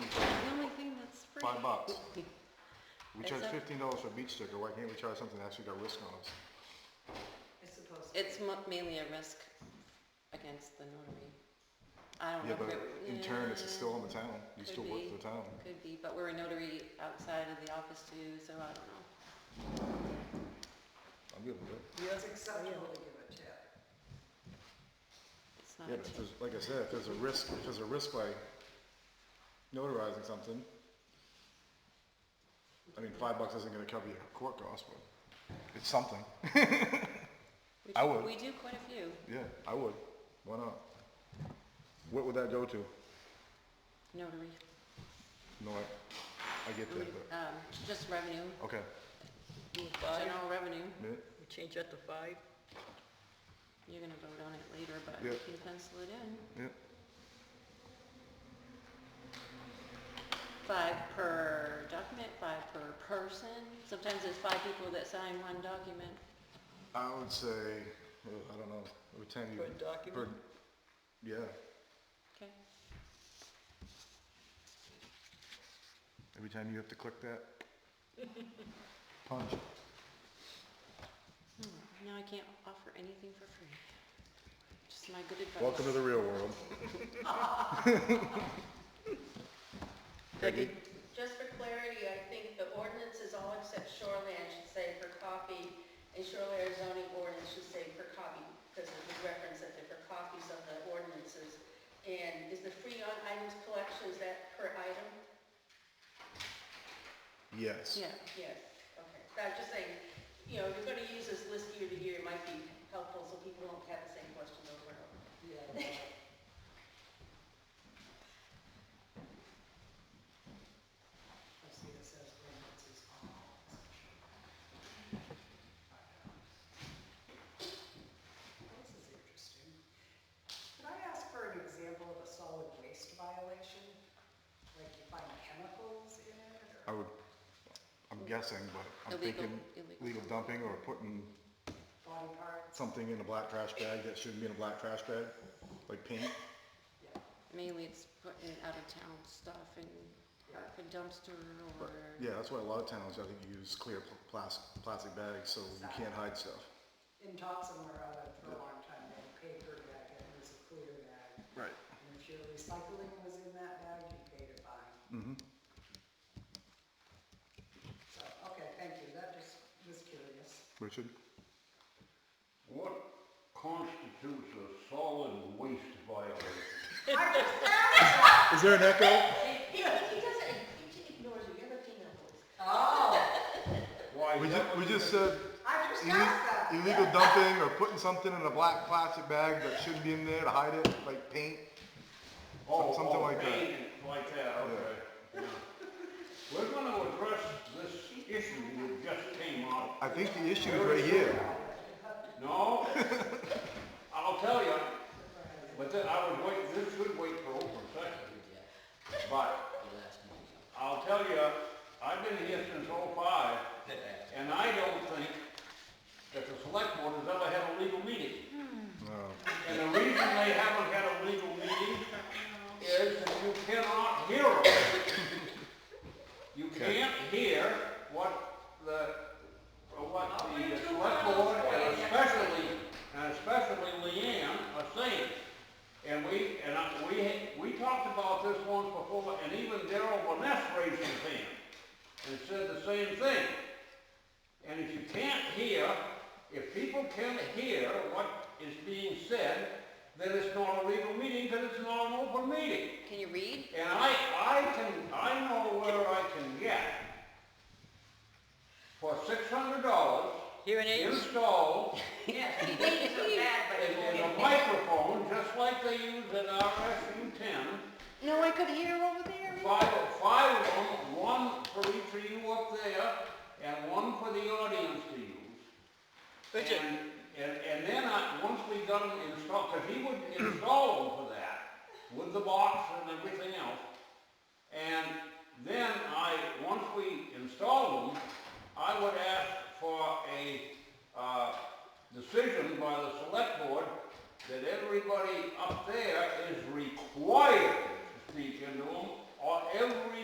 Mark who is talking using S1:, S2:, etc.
S1: five bucks. We charge
S2: It's a-
S1: fifteen dollars for a beach sticker, why can't we charge something that actually got risk on us?
S3: It's supposed to.
S2: It's mo- mainly a risk against the notary. I don't know.
S1: Yeah, but
S2: if it-
S1: in turn, it's still on the town, you
S2: Could
S1: still work
S2: be.
S1: for the town.
S2: yeah, Could be, but we're a notary outside of the office too, so I don't know.
S1: I'm good with it.
S3: It's acceptable to give a tip.
S2: It's not
S1: Yeah,
S2: a
S1: but if
S2: tip.
S1: there's, like I said, if there's a risk, if there's a risk by notarizing something, I mean, five bucks isn't gonna cover your court costs, but it's something.
S2: We
S1: I
S2: do-
S1: would.
S2: We do quite a few.
S1: Yeah, I would. Why not? What would that go to?
S2: Notary,
S1: No, I, I get that, but,
S2: um, just revenue,
S1: okay.
S4: Move five,
S2: general revenue.
S1: Minute?
S4: we change that to five,
S2: You're gonna vote on it later, but
S1: Yeah.
S2: you can pencil it in.
S1: Yeah,
S2: Five per document, five per person. Sometimes there's five people that sign one document.
S1: I would say, well, I don't know, every time you.
S4: per document,
S1: per- Yeah,
S2: Okay,
S1: every time you have to click that. Punch.
S2: Hmm. now I can't offer anything for free. Just my good advice.
S1: Welcome to the real world. Peggy?
S5: Just for clarity, I think the ordinance is all except shoreland should say for copy, and shoreland zoning ordinance should say for copy, because it was referenced that there were copies of the ordinances. And is the free on items collection, is that per item?
S1: Yes.
S2: Yeah,
S5: Yes, okay. So I'm just saying, you know, if you're gonna use this list year to year, it might be helpful so people don't have the same questions over and over.
S3: Yeah. I see it says ordinance is on. This is interesting. Could I ask for an example of a solid waste violation? Like you find chemicals in it or?
S1: I would, I'm guessing, but I'm
S2: Illegal-
S1: thinking
S2: illegal.
S1: legal dumping or putting
S3: body parts.
S1: something in a black trash bag that shouldn't be in a black trash bag, like paint.
S3: Yeah,
S2: mainly it's putting out of town stuff in like a dumpster or.
S1: Yeah, that's why a lot of towns, I think, use clear pl- plastic, plastic bags so you can't hide stuff.
S3: in Dotson where I lived for a long time, they had a paper bag and it was a clear bag.
S1: Right.
S3: And if your recycling was in that bag, you paid a fine.
S1: Mm-hmm.
S3: So, okay, thank you, that just was curious.
S1: Richard?
S6: What constitutes a solid waste violation?
S1: Is there an echo?
S5: He, he doesn't, he just ignores you, you're looking at those.
S3: Oh,
S6: Why,
S1: We
S6: that
S1: just, we
S6: would
S1: just
S6: be-
S1: said
S3: I just
S1: ille-
S3: asked that.
S1: illegal dumping or putting something in a black plastic bag that shouldn't be in there to hide it, like paint.
S6: Oh,
S1: something
S6: oh,
S1: like that.
S6: paint, Like that, okay. We're gonna address this issue that just came up.
S1: I think the issue is right here.
S6: No, I'll tell you, but then I would wait, this would wait for open session. But I'll tell you, I've been here since '05, and I don't think that the select board has ever had a legal meeting.
S1: Uh,
S6: And the reason they haven't had a legal meeting is that you cannot hear them. You can't hear what the, what the select board, and especially, and especially Leanne are saying. And we, and I, we, we talked about this once before, and even Daryl Vaness raised his hand and said the same thing. And if you can't hear, if people can't hear what is being said, then it's not a legal meeting, because it's not an open meeting.
S2: Can you read?
S6: And I, I can, I know where I can get for six hundred dollars
S4: hearing aids,
S6: installed
S3: Yeah.
S5: He thinks it's bad, but he
S6: and
S5: won't.
S6: a microphone, just like they use in RSU ten.
S2: No, I could hear over there.
S6: Five, five of them, one for each of you up there, and one for the audience to use.
S4: Richard.
S6: And, and, and then I, once we got them installed, because he would install them for that, with the box and everything else. And then I, once we installed them, I would ask for a, uh, decision by the select board that everybody up there is required to speak into them, or every